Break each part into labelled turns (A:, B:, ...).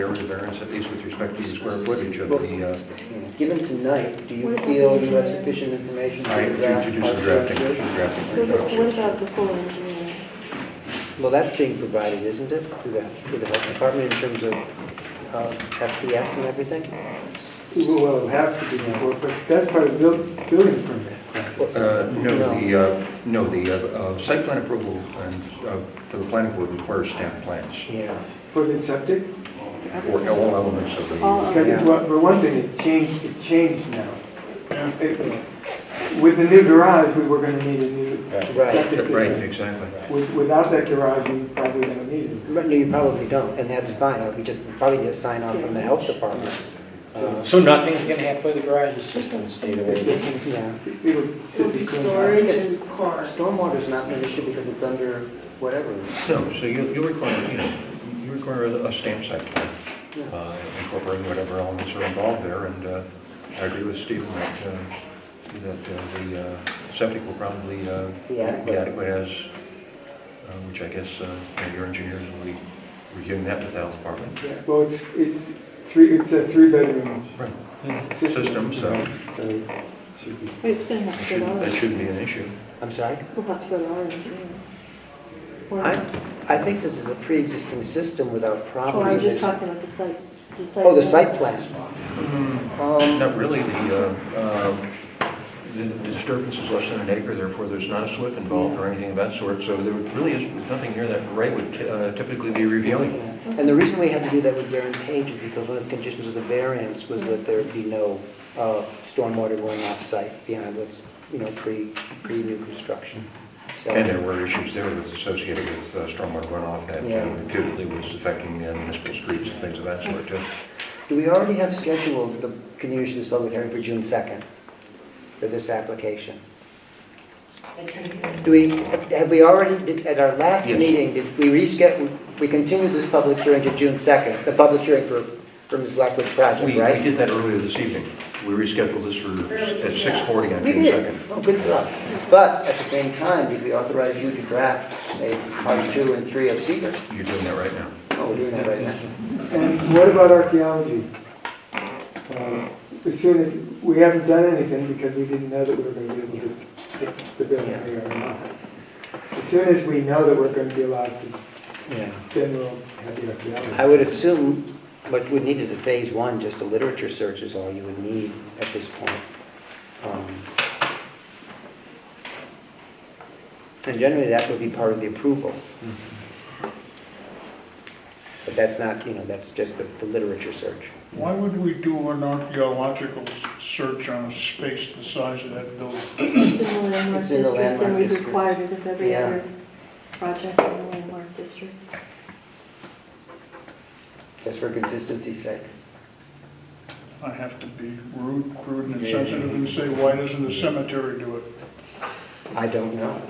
A: area variance, at least with respect to the square footage of the, uh,
B: Given tonight, do you feel you have sufficient information
A: I
B: to draft?
A: to do some drafting, some drafting. for
C: What about- what
A: adoption.
C: about the full engineering?
B: Well, that's being provided, isn't it, through the, through the health department in terms of uh, SDS and everything?
D: Well, it'll have to be incorporated, that's part of the buil- building permit process.
A: Uh, No, the, uh, no, the uh, uh, site plan approval and, uh, for the planning board requires stamp plans
B: Yeah.
D: For the septic,
A: for all elements of
C: All
A: the,
C: of-
D: because it- for for one thing, it changed, it changed now. It- With the new garage, we were gonna need a new
B: Right.
D: septic
A: right,
D: system.
A: exactly.
D: With- Without that garage, we probably don't need it.
B: But No, you probably don't, and that's fine, Uh, we just probably get a sign off from the health department. Uh,
E: So nothing's gonna happen to the garage, it's just gonna stay the way it is?
D: It's just-
B: Yeah.
D: It'll
F: It'll
D: just
F: be
D: be
F: storage
D: cleaned out.
F: and cars.
B: Stormwater's not an issue because it's under whatever.
A: No, so you, you require, you know, you require a a stamp site plan, uh, incorporating whatever elements are involved there, and uh, I agree with Stephen that, uh, that uh, the uh, septic will probably uh, be
B: Be adequate.
A: adequate as, uh, which I guess uh, you know, your engineers will be reviewing that with the health department.
D: Yeah, Well, it's, it's three, it's a three-bedroom
A: Right.
D: system.
A: System, so-
D: you know, So, it should be.
C: It's going to
A: That
C: have to go to
A: shouldn't,
C: our,
A: that shouldn't be an issue.
B: I'm sorry?
C: we'll have to go to our engineering. Or
B: I,
C: not.
B: I think this is a pre-existing system without
C: Or
B: problems.
C: are you Oh, just talking about the site?
B: Oh, the site plan. Um,
A: Not really, the, uh, uh, the the disturbance is less than an acre, therefore there's not a slip involved or anything of that sort, so there really is nothing here that Ray would uh, typically be reviewing.
B: And the reason we had to do that with Darren Page is because one of the conditions of the variance was that there be no uh, stormwater going off-site beyond what's, you know, pre, pre-new construction. So,
A: And there were issues there with associated with uh, stormwater runoff that
B: Yeah.
A: uh, reputedly was affecting uh, municipal streets and things of that sort, too.
B: do we already have scheduled the continuation of this public hearing for June 2nd for this application? Do we, have we already, did- at our last
A: Yes.
B: meeting, did we reschedule, we continued this public hearing to June 2nd, the public hearing for, for Ms. Blackwood's
A: We
B: project,
A: we
B: right?
A: did that earlier this evening. We rescheduled this for, at 6:40 on
B: We
A: June
B: did,
A: 2nd.
B: Well, good for us. But at the same time, did we authorize you to draft a part two and three of secret?
A: You're doing that right now.
B: Oh, we're doing that right now.
D: And what about archaeology? Um, As soon as, we haven't done anything because we didn't know that we were going to be able to pick the building
B: Yeah.
D: here or not. As soon as we know that we're going to be allowed to,
B: Yeah.
D: then we'll have the archaeology.
B: I would assume what we need is a phase one, just a literature search is all you would need at this point. Um, And generally, that would be part of the approval.
D: Mm-hmm.
B: But that's not, you know, that's just the the literature search.
G: Why would we do an archaeological s- search on a space the size of that building?
C: It's in the landmark
B: It's in the
C: district,
B: landmark
C: and we
B: district.
C: required it of every
B: Yeah.
C: other project in the landmark district.
B: Just for consistency's sake.
G: I have to be rude, crude, and insensitive and say, why doesn't the cemetery do it?
B: I don't know.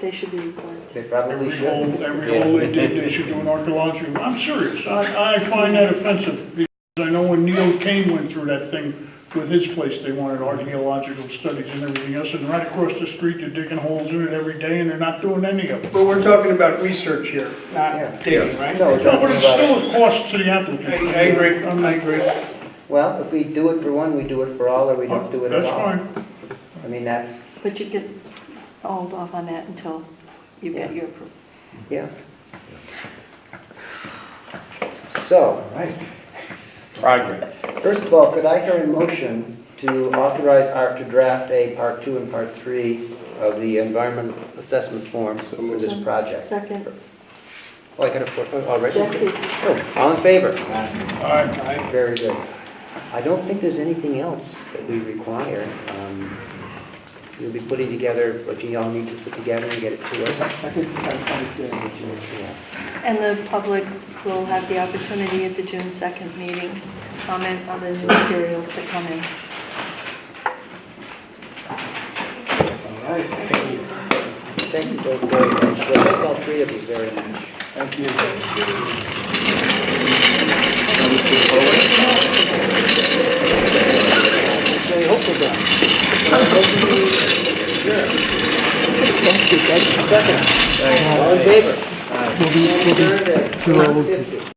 C: They should be required.
B: They probably
G: Every
B: should.
G: hole, every hole they dig, they should do an archaeological, I'm serious, I, I find that offensive, because I know when Neil Kane went through that thing with his place, they wanted archaeological studies and everything else, and right across the street, they're digging holes in it every day, and they're not doing any of it.
H: But we're talking about research here,
B: Yeah.
H: not digging, right?
B: No,
H: I,
B: we're
G: No, but
B: talking
G: it's
B: about it.
G: still a cost to the applicant.
H: I agree, I agree.
B: Well, if we do it for one, we do it for all, or we don't do it at
G: That's
B: all.
G: fine.
B: I mean, that's,
C: But you could hold off on that until you get
B: Yeah.
C: your approval.
B: yeah. So,
D: All right.
E: Progress.
B: first of all, could I hear a motion to authorize Art to draft a part two and part three of the environmental assessment form for this project?
C: Second,
B: Oh, I got a, already?
C: Jesse.
B: Oh, All in favor?
H: I-
B: Very good. I don't think there's anything else that we require. Um, You'll be putting together what you all need to put together and get it to us.
D: I think I understand what you're saying.
B: Yeah.
C: And the public will have the opportunity at the June 2nd meeting to comment on the new materials that come in.
D: All right, thank you.
B: Thank you both very much. Well, thank all three of you very much.
D: Thank you.
B: So I hope they're done. I'm hoping we- Sure. This is past your bedtime. Second. All in favor? We'll be, we'll be.